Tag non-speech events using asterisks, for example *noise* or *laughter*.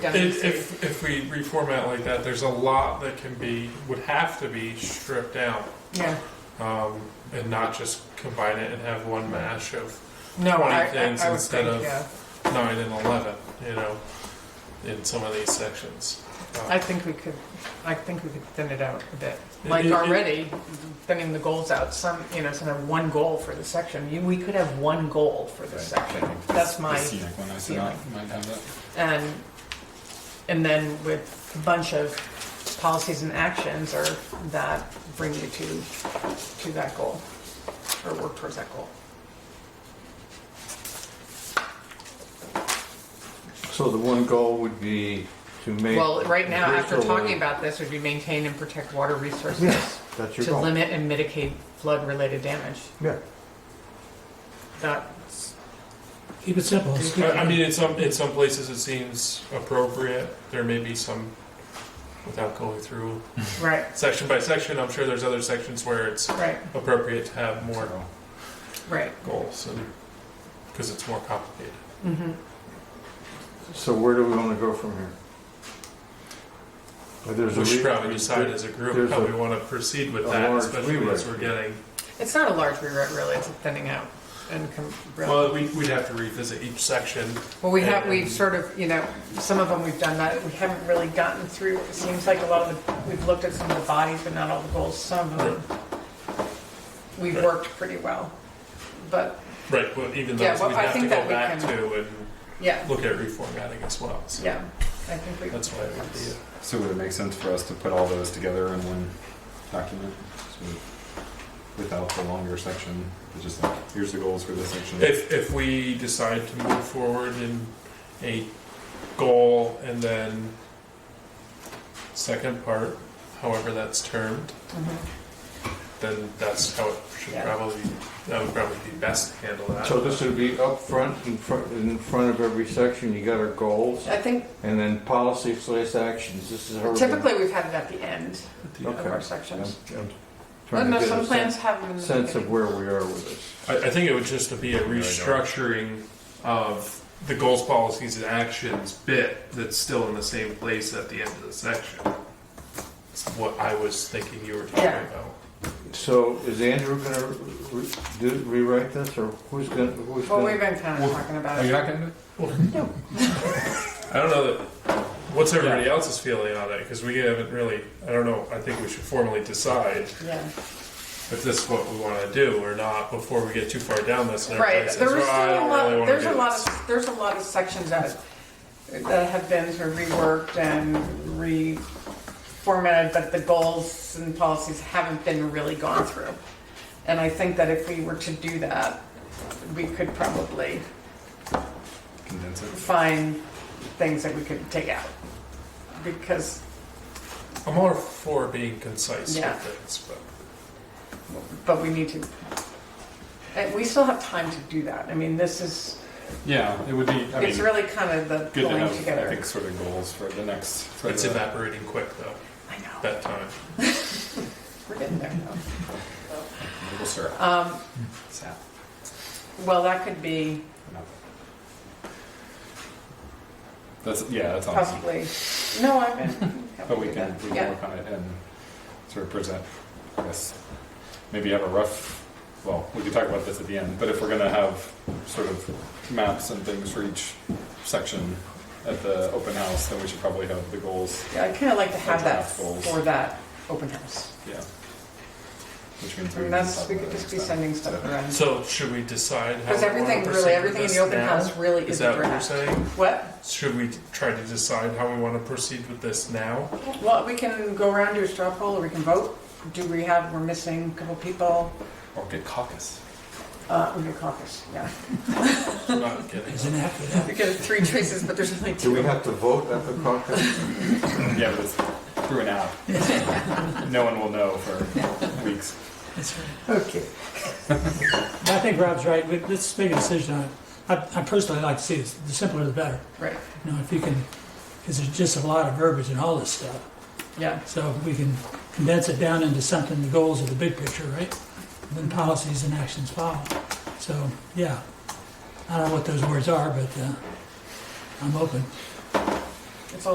down. If, if, if we reformat like that, there's a lot that can be, would have to be stripped down. Yeah, Um, and not just combine it and have one mash of no, I, Twenty I, I would things instead think, of- yeah, nine and eleven, you know, in some of these sections. Uh, I think we could, I think we could thin it out a bit. It- Like it- it- already, thinning the goals out, some, you know, some have one goal for the section, you, we could have one goal for this section, that's my. The scenic one I "Oh, set feeling. up might have it. And, and then with a bunch of policies and actions or that bring you to, to that goal or work towards that goal. So the one goal would be to make. Well, right now, after Bristol talking a- about this, would be maintain and protect water resources Yes, that's your to goal. limit and mitigate flood-related damage. Yeah, That's, Keep it simple. It's Oh, I I mean, in some, in some places it seems appropriate, there may be some, without going through right, section by section, I'm sure there's other sections where it's right, appropriate to have more So, right. goals and, because it's more complicated. Mhm. so where do we want to go from here? Uh, There's a. We should re- probably decide as a group there's how a- we want to proceed with a that, large especially rewrite as we're here. getting, It's not a large rewrite, really, it's a thinning out and. com- well, we, we'd have to revisit each section. Well, we have, And- we've sort of, you know, some of them we've done that, we haven't really gotten through, it seems like a lot of the, we've looked at some of the bodies, but not all the goals, some of them. We've Right. worked pretty well, but, Right, well, even Yeah, those well, we'd I have to think that go we back can- to and yeah, look at reformatting as well, so. yeah, I think we, That's why it would be, a- So would it make sense for us to put all those together in one document? So Without the longer section, it's just like, here's the goals for this section. if, if we decide to move forward in a goal and then second part, however that's termed, Mhm. then that's how it should Yeah. probably, that would probably be best to handle that. So this would be up front, in front, in front of every section, you got our goals, I think and then policy slash actions, this is how. we're gonna- typically we've had it at the end of Okay. our sections. I'm Well, trying no, to get some a sen- plans have them. in the Sense of beginning. where we are with this. I, I think it would just be a restructuring of the goals, policies, and actions bit that's still in the same place at the end of the section. It's what I was thinking you were talking Yeah. about. So is Andrew gonna re- do, rewrite this, or who's gonna, who's Well, we've gonna? been kind of talking about it. not gonna do it? I don't know that, what's everybody else's feeling on it because we haven't really. I don't know. I think we should formally decide Yeah. if this is what we want to do or not before we get too far down this. And everybody Right, says, there was "Well, I still a don't really lot, wanna there's do a lot this." of, there's a lot of sections that, that have been sort of reworked and reformatted, but the goals and policies haven't been really gone through. And I think that if we were to do that, we could probably Condense it. find things that we could take out. Because, I'm all for being concise Yeah. with things, but but we need to, and we still have time to do that. I mean, this is, Yeah, it would be, I mean, it's really kind of the good to pulling have, I together. think, sort of goals for the next. for it's the- evaporating quick though. I know, That time. we're getting there though. Maple syrup. Um, Sap. well, that could be No. That's, yeah, that's awesome. possibly, no, I meant. But we can, we can Yeah, work on it and sort of present, I guess, maybe have a rough, well, we could talk about this at the end, but if we're gonna have sort of maps and things for each section at the open house, then we should probably have the goals, Yeah, I'd kind of like to have that Draft goals. for that open house. yeah. Which means I we mean, can that's, talk we about could it just be next time. sending stuff around. So should we decide? how Because we wanna everything, really, proceed everything with in this the open now? house really Is is a that what you're draft. saying? What? Should we try to decide how we want to proceed with this now? Well, we can go around, do a straw poll, or we can vote. Do we have, we're missing a couple people, Or get caucus. uh, we get caucus, yeah. *laughs* I'm not kidding. Isn't after that. We get three choices, but there's only Do we two. have to vote at the caucus? Yeah, but it's through an app. *laughs* No one will know for weeks. That's right. Okay. I think Rob's right. We- Let's make a decision on it. I, I personally like to see this. The simpler the better. Right, You know, if you can, because there's just a lot of verbiage and all this stuff. yeah. So if we can condense it down into something, the goals of the big picture, right? And then policies and actions follow. So, yeah. I don't know what those words are, but uh, I'm open.